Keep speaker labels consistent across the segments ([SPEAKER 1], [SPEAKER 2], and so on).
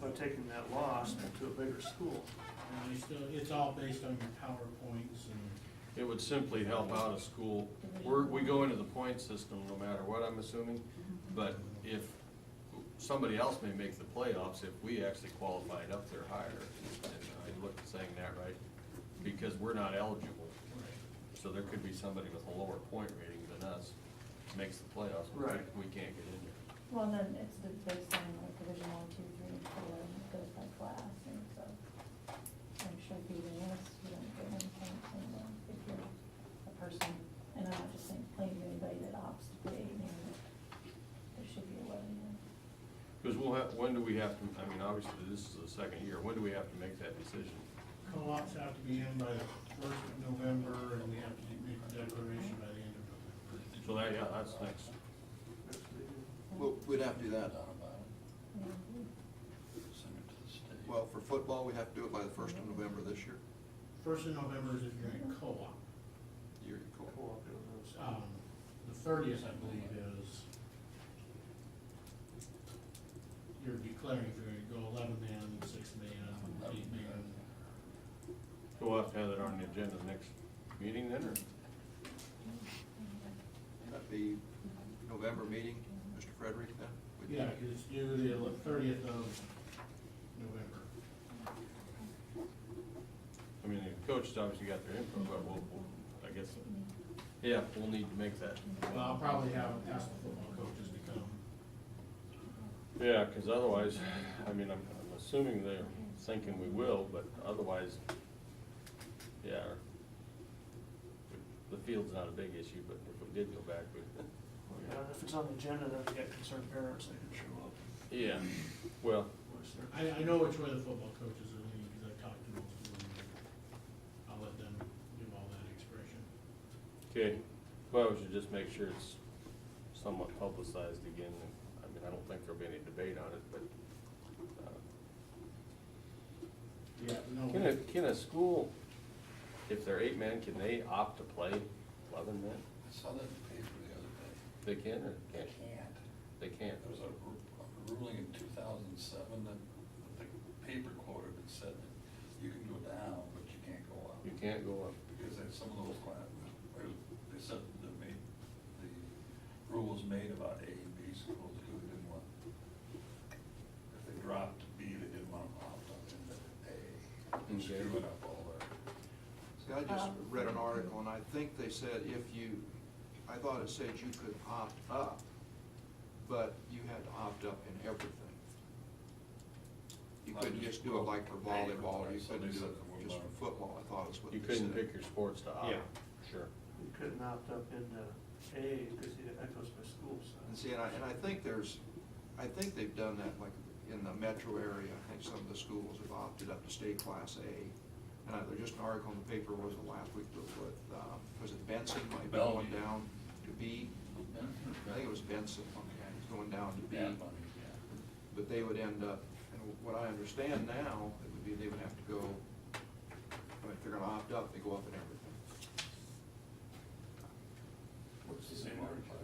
[SPEAKER 1] by taking that loss to a bigger school.
[SPEAKER 2] And they still, it's all based on your PowerPoints and,
[SPEAKER 3] It would simply help out a school. We're, we go into the point system no matter what, I'm assuming. But if, somebody else may make the playoffs if we actually qualified up there higher. And I looked at saying that right, because we're not eligible. So there could be somebody with a lower point rating than us makes the playoffs. but we-
[SPEAKER 1] Right.
[SPEAKER 3] We can't get in there.
[SPEAKER 4] Well, then it's the based on like division one, two, three, and four, and it goes by class, and so I'm sure beating this, you don't get any points, and then if you're a person, and I'm not just saying playing anybody that opts to play, you know, there should be a way, you know.
[SPEAKER 3] Because we'll have, when do we have to, I mean, obviously, this is the second year. When do we have to make that decision?
[SPEAKER 2] co-ops have to be in by the first of November, and we have to make the declaration by the end of November.
[SPEAKER 3] So that, yeah, that's next.
[SPEAKER 5] Well, we'd have to do that.
[SPEAKER 4] Yeah.
[SPEAKER 5] Well, for football, we have to do it by the first of November this year.
[SPEAKER 2] First of November is if you're in co-op.
[SPEAKER 5] Year cool.
[SPEAKER 1] Co-op, it was-
[SPEAKER 3] Oh.
[SPEAKER 2] Um, the thirtieth, I believe, is you're declaring if you're gonna go eleven man, six man, eight man.
[SPEAKER 3] So we'll have to have that on the agenda next meeting then, or?
[SPEAKER 5] That'd be November meeting, Mr. Frederick, then? We'd-
[SPEAKER 2] Yeah, 'cause it's due the thirtieth of November.
[SPEAKER 3] I mean, the coaches obviously got their input, but we'll, we'll- I guess, yeah, we'll need to make that.
[SPEAKER 2] Well, I'll probably have, ask the football coaches to come.
[SPEAKER 3] Yeah, because otherwise, I mean, I'm, I'm assuming they're thinking we will, but otherwise, yeah. The field's not a big issue, but if we did go back, we,
[SPEAKER 1] Well, yeah, If it's on the agenda, then we got concerned parents, they can show up.
[SPEAKER 3] yeah, well,
[SPEAKER 1] Which they're-
[SPEAKER 2] I, I know which way the football coaches are leaning, because I've talked to most of them. I'll let them do all that expression.
[SPEAKER 3] okay. Well, we should just make sure it's somewhat publicized again. I mean, I don't think there'll be any debate on it, but, uh,
[SPEAKER 2] Yeah. No,
[SPEAKER 3] Can a, can a school, if they're eight men, can they opt to play eleven men?
[SPEAKER 6] I saw that in the paper the other day.
[SPEAKER 3] They can or
[SPEAKER 6] They
[SPEAKER 3] can't?
[SPEAKER 6] can't.
[SPEAKER 3] They can't.
[SPEAKER 6] There was a ru- a ruling in two thousand and seven that the paper quoted that said that you can go down, but you can't go up.
[SPEAKER 3] You can't go up.
[SPEAKER 6] Because there's some of those cla- they said that made, the rules made about A and B schools who they didn't want. If they dropped B, they didn't want them opt up into A, and
[SPEAKER 3] Okay.
[SPEAKER 6] screwing up all their.
[SPEAKER 5] See, I just read an article, and I think they said if you, I thought it said you could opt up, but you had to opt up in everything. You couldn't just do it like for volleyball, you couldn't do it just for football, I thought is what they
[SPEAKER 3] You
[SPEAKER 5] said.
[SPEAKER 3] couldn't pick your sports to opt.
[SPEAKER 1] Yeah.
[SPEAKER 3] Sure.
[SPEAKER 1] You couldn't opt up into A, because that goes by school
[SPEAKER 5] And
[SPEAKER 1] size.
[SPEAKER 5] see, and I, and I think there's, I think they've done that, like, in the metro area, I think some of the schools have opted up to stay class A. And I, there's just an article in the paper, was it last week, but with, um, was it Benson, might be going
[SPEAKER 6] Bellevue.
[SPEAKER 5] down to B? I think it was Benson, okay, he's going down to B.
[SPEAKER 6] Bad money, yeah.
[SPEAKER 5] But they would end up, and what I understand now, it would be they would have to go, I mean, if they're gonna opt up, they go up in everything.
[SPEAKER 6] It's the same article.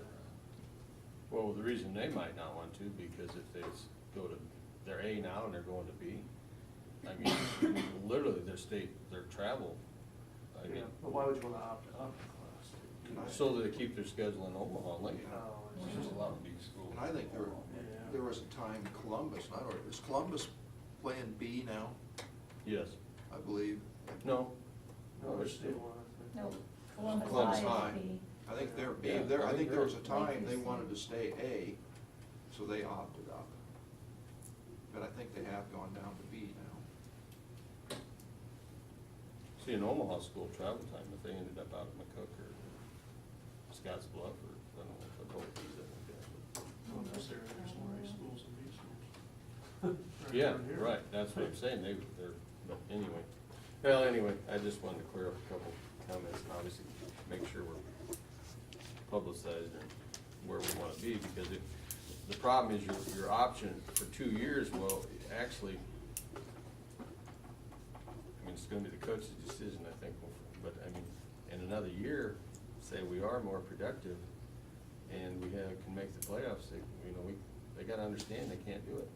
[SPEAKER 3] Well, the reason they might not want to, because if they s- go to, they're A now and they're going to B, I mean, literally their state, their travel. I mean,
[SPEAKER 1] Yeah, But why would you want to opt up in class?
[SPEAKER 5] Can I-
[SPEAKER 3] so that they keep their schedule in Omaha, like,
[SPEAKER 1] Oh, it's
[SPEAKER 6] There's
[SPEAKER 1] just-
[SPEAKER 6] a lot of big schools.
[SPEAKER 5] And I think there,
[SPEAKER 1] Yeah.
[SPEAKER 5] there was a time Columbus, and I don't, is Columbus playing B now,
[SPEAKER 3] yes,
[SPEAKER 5] I believe?
[SPEAKER 3] no?
[SPEAKER 1] No, there's still one, I think.
[SPEAKER 4] No, Columbus
[SPEAKER 5] Columbus
[SPEAKER 4] High
[SPEAKER 5] High.
[SPEAKER 4] is the.
[SPEAKER 5] I think they're B,
[SPEAKER 3] Yeah,
[SPEAKER 5] there,
[SPEAKER 3] I
[SPEAKER 5] I
[SPEAKER 3] think
[SPEAKER 5] think there
[SPEAKER 3] they're-
[SPEAKER 5] was a time they wanted to stay A, so they opted up. But I think they have gone down to B now.
[SPEAKER 3] See, in Omaha school travel time, if they ended up out of McCook or Scotts Bluff or, I don't know, if both these, I think.
[SPEAKER 1] Well, that's there, there's more A schools than B schools.
[SPEAKER 3] that-
[SPEAKER 1] Right
[SPEAKER 3] Yeah,
[SPEAKER 1] down here.
[SPEAKER 3] right, that's what I'm saying, they, they're, but anyway. Well, anyway, I just wanted to clear up a couple comments, and obviously, make sure we're publicized and where we wanna be, because it, the problem is your, your option for two years, well, actually, I mean, it's gonna be the coach's decision, I think, but, I mean, in another year, say we are more productive and we have, can make the playoffs, they, you know, we, they gotta understand they can't do it.